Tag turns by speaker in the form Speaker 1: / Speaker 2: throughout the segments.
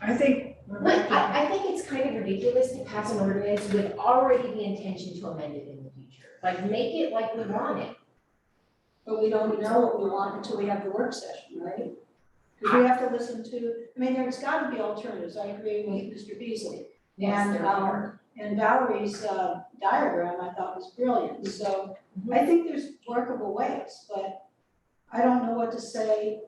Speaker 1: I think.
Speaker 2: But I, I think it's kind of ridiculous to pass an ordinance with already the intention to amend it in the future. Like, make it like we want it.
Speaker 3: But we don't know what we want until we have the work session, right? Because we have to listen to, I mean, there's gotta be alternatives, I agree with Mr. Beasley.
Speaker 2: Yes,
Speaker 3: And
Speaker 2: there are.
Speaker 3: our, and Valerie's uh, diagram, I thought was brilliant, so
Speaker 2: Mm-hmm.
Speaker 3: I think there's workable ways, but I don't know what to say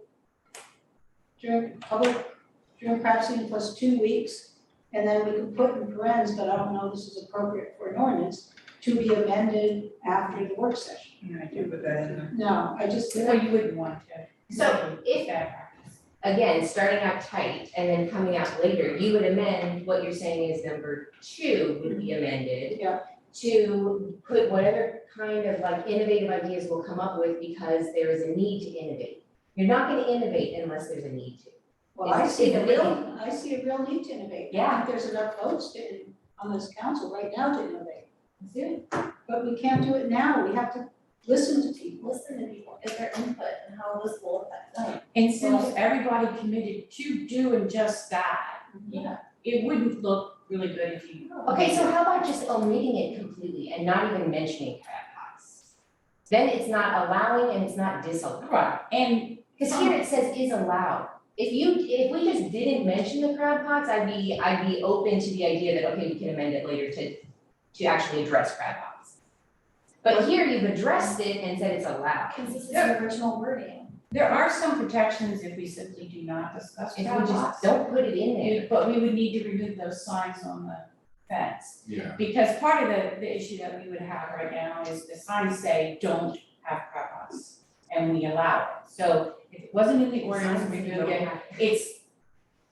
Speaker 3: during public, during perhaps even plus two weeks, and then we can put in parentheses, but I don't know this is appropriate for an ordinance, to be amended after the work session.
Speaker 1: Yeah, I do put that in there.
Speaker 3: No, I just,
Speaker 4: No, you wouldn't want to.
Speaker 2: So if-
Speaker 4: Bad practice.
Speaker 2: Again, starting out tight and then coming out later, you would amend, what you're saying is number two would be amended.
Speaker 3: Yeah.
Speaker 2: To put whatever kind of like innovative ideas we'll come up with because there is a need to innovate. You're not gonna innovate unless there's a need to.
Speaker 3: well, I
Speaker 2: It's-
Speaker 3: see
Speaker 2: it's
Speaker 3: a
Speaker 2: a
Speaker 3: real, I see a real need to innovate. I
Speaker 2: Yeah.
Speaker 3: think there's enough votes to, on this council right now to innovate,
Speaker 2: Let's do it.
Speaker 3: but we can't do it now, we have to listen to people.
Speaker 5: listen to people, get their input and how this will affect them.
Speaker 4: And since everybody committed to doing just that,
Speaker 5: Yeah.
Speaker 4: it wouldn't look really good if you.
Speaker 2: Okay, so how about just omitting it completely and not even mentioning crab pots? Then it's not allowing and it's not disallowing.
Speaker 4: Right, and
Speaker 2: Cause here it says is allowed. If you, if we just didn't mention the crab pots, I'd be, I'd be open to the idea that, okay, we can amend it later to, to actually address crab pots. But here you've addressed it and said it's allowed.
Speaker 5: Cause this is
Speaker 4: Yeah.
Speaker 5: the original wording.
Speaker 4: there are some protections if we simply do not discuss
Speaker 2: If
Speaker 4: crab
Speaker 2: we just
Speaker 4: pots.
Speaker 2: don't put it in there.
Speaker 4: We- But we would need to remove those signs on the fence.
Speaker 6: Yeah,
Speaker 4: Because part of the, the issue that we would have right now is the signs say, don't have crab pots, and we allow it. So if it wasn't in the ordinance, we remove it. It's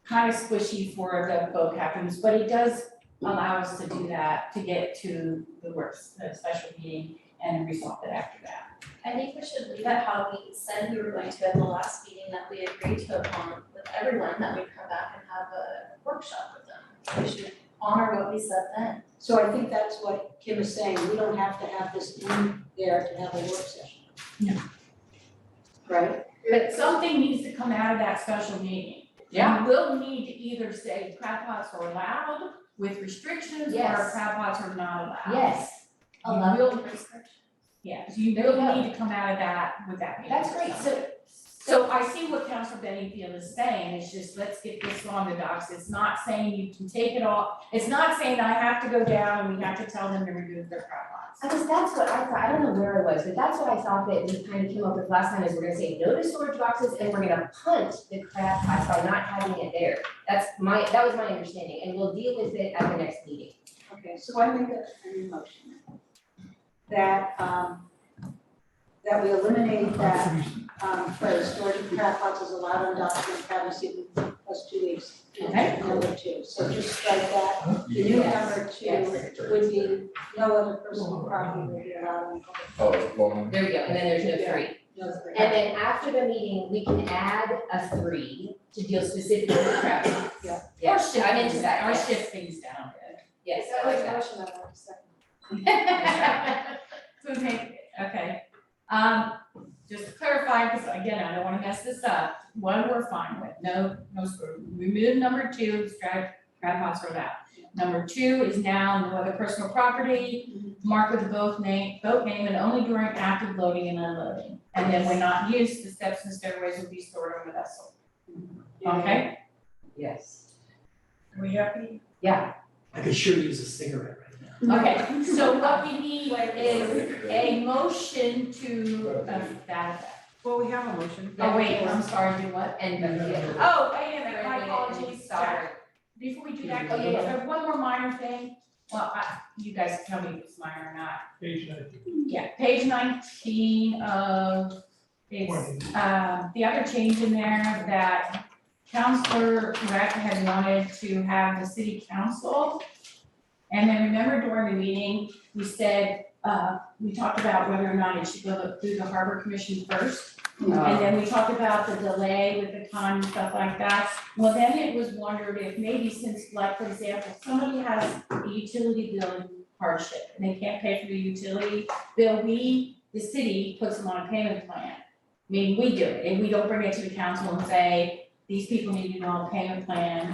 Speaker 4: kind of squishy for the vocabularies, but it does allow us to do that, to get to the works, the special meeting and resolve it after that.
Speaker 5: I think we should leave it how we said we were going to at the last meeting that we agreed to upon with everyone, that we'd come back and have a workshop with them. We should honor what we said then.
Speaker 3: So I think that's what Kim is saying, we don't have to have this in there to have a work session.
Speaker 4: No.
Speaker 3: Right?
Speaker 4: But something needs to come out of that special meeting. We will need to either say crab pots are allowed with restrictions or
Speaker 2: Yes.
Speaker 4: crab pots are not allowed.
Speaker 2: Yes,
Speaker 4: You
Speaker 5: Allow
Speaker 4: will-
Speaker 5: the restriction.
Speaker 4: Yeah, so you
Speaker 2: There you
Speaker 4: really
Speaker 2: go.
Speaker 4: need to come out of that with that meeting.
Speaker 2: that's great. So
Speaker 4: So I see what Council Benningfield is saying, it's just, let's get this on the docs, it's not saying you can take it off, it's not saying I have to go down and we have to tell them to remove their crab pots.
Speaker 2: I guess that's what I thought, I don't know where I was, but that's what I thought that we kind of came up with last time is we're gonna say no to storage boxes and we're gonna punt the crab pots by not having it there. That's my, that was my understanding, and we'll deal with it at the next meeting.
Speaker 3: Okay, so I make a, a new motion. That, um, that we eliminate that, um, phrase, storage of crab pots is allowed on document privacy plus two weeks.
Speaker 4: Okay.
Speaker 3: Number two, so just strike that, the new
Speaker 2: Yes,
Speaker 3: number two
Speaker 2: yes.
Speaker 3: would be, no other personal property would be allowed in public.
Speaker 6: oh, well,
Speaker 2: There we go, and then there's no three.
Speaker 3: No three.
Speaker 2: And then after the meeting, we can add a three to deal specifically with crab pots.
Speaker 3: Yeah.
Speaker 2: Yeah, I'm into that,
Speaker 4: Or
Speaker 2: yes.
Speaker 4: shift things down.
Speaker 2: Yes,
Speaker 3: That
Speaker 2: I like
Speaker 3: was
Speaker 2: that.
Speaker 3: a motion I want to second.
Speaker 4: So okay, okay, um, just to clarify, because again, I don't wanna mess this up, one we're fine with, no, no, sort of- remove number two, strike crab pots from that. Number two is now no other personal property, mark with both name, boat name and only during active loading and unloading. And then when not used, the steps and stairways will be stored on the vessel, okay?
Speaker 2: Yes.
Speaker 1: Are we happy?
Speaker 2: Yeah,
Speaker 7: I could sure use a cigarette right now.
Speaker 4: Okay, so what we need
Speaker 5: Wait,
Speaker 4: is a motion to, uh, that effect.
Speaker 1: Well, we have a motion.
Speaker 4: Oh, wait, I'm sorry, do what?
Speaker 2: and the.
Speaker 4: Oh, I am, my apologies, sorry.
Speaker 2: Sorry.
Speaker 4: Before we do that, oh, yeah, yeah, one more minor thing. Well, I, you guys tell me if it's minor or not. Yeah, page nineteen of, it's, um, the other change in there that Counselor Rec had wanted to have the city council. And then remember during the meeting, we said, uh, we talked about whether or not it should go through the harbor commission first.
Speaker 2: Oh.
Speaker 4: And then we talked about the delay with the con and stuff like that. Well, then it was wondered if maybe since, like, for example, somebody has a utility bill hardship and they can't pay for the utility bill, we, the city, puts them on a payment plan. I mean, we do it, and we don't bring it to the council and say, these people need to know a payment plan,